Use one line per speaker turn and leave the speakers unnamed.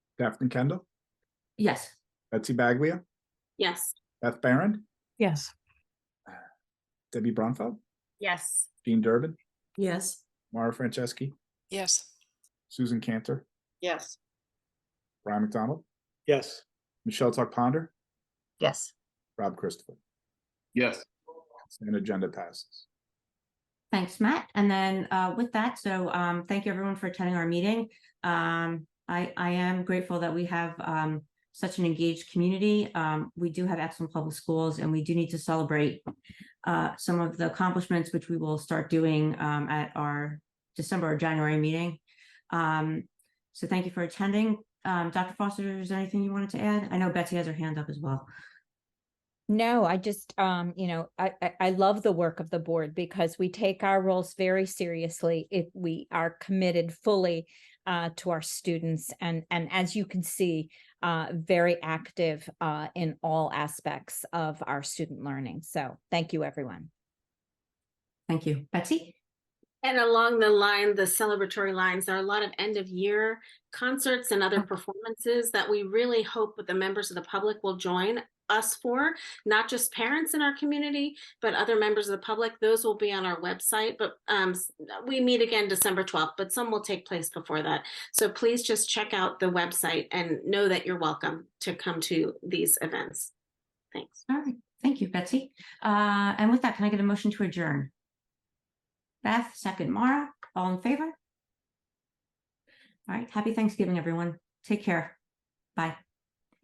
Daphne Kendall,
Yes.
Betsy Baglia,
Yes.
Beth Baron,
Yes.
Debbie Bronfeld,
Yes.
Jean Durbin,
Yes.
Mara Franceschi,
yes,
Susan Cantor,
Yes.
Ryan McDonald,
yes,
Michelle Tuck Ponder,
yes,
Rob Christopher.
yes,
And agenda passes.
Thanks, Matt. And then uh, with that, so um, thank you everyone for attending our meeting. Um, I, I am grateful that we have um, such an engaged community. Um, we do have excellent public schools and we do need to celebrate uh, some of the accomplishments, which we will start doing um, at our December or January meeting. Um, so thank you for attending. Um, Dr. Foster, is there anything you wanted to add? I know Betsy has her hand up as well.
No, I just, um, you know, I, I, I love the work of the board because we take our roles very seriously if we are committed fully uh, to our students and, and as you can see, uh, very active uh, in all aspects of our student learning. So thank you, everyone.
Thank you. Betsy?
And along the line, the celebratory lines, there are a lot of end of year concerts and other performances that we really hope that the members of the public will join us for, not just parents in our community, but other members of the public. Those will be on our website, but um, s- we meet again December 12th, but some will take place before that. So please just check out the website and know that you're welcome to come to these events. Thanks.
All right. Thank you, Betsy. Uh, and with that, can I get a motion to adjourn? Beth, second, Mara, all in favor? All right. Happy Thanksgiving, everyone. Take care. Bye.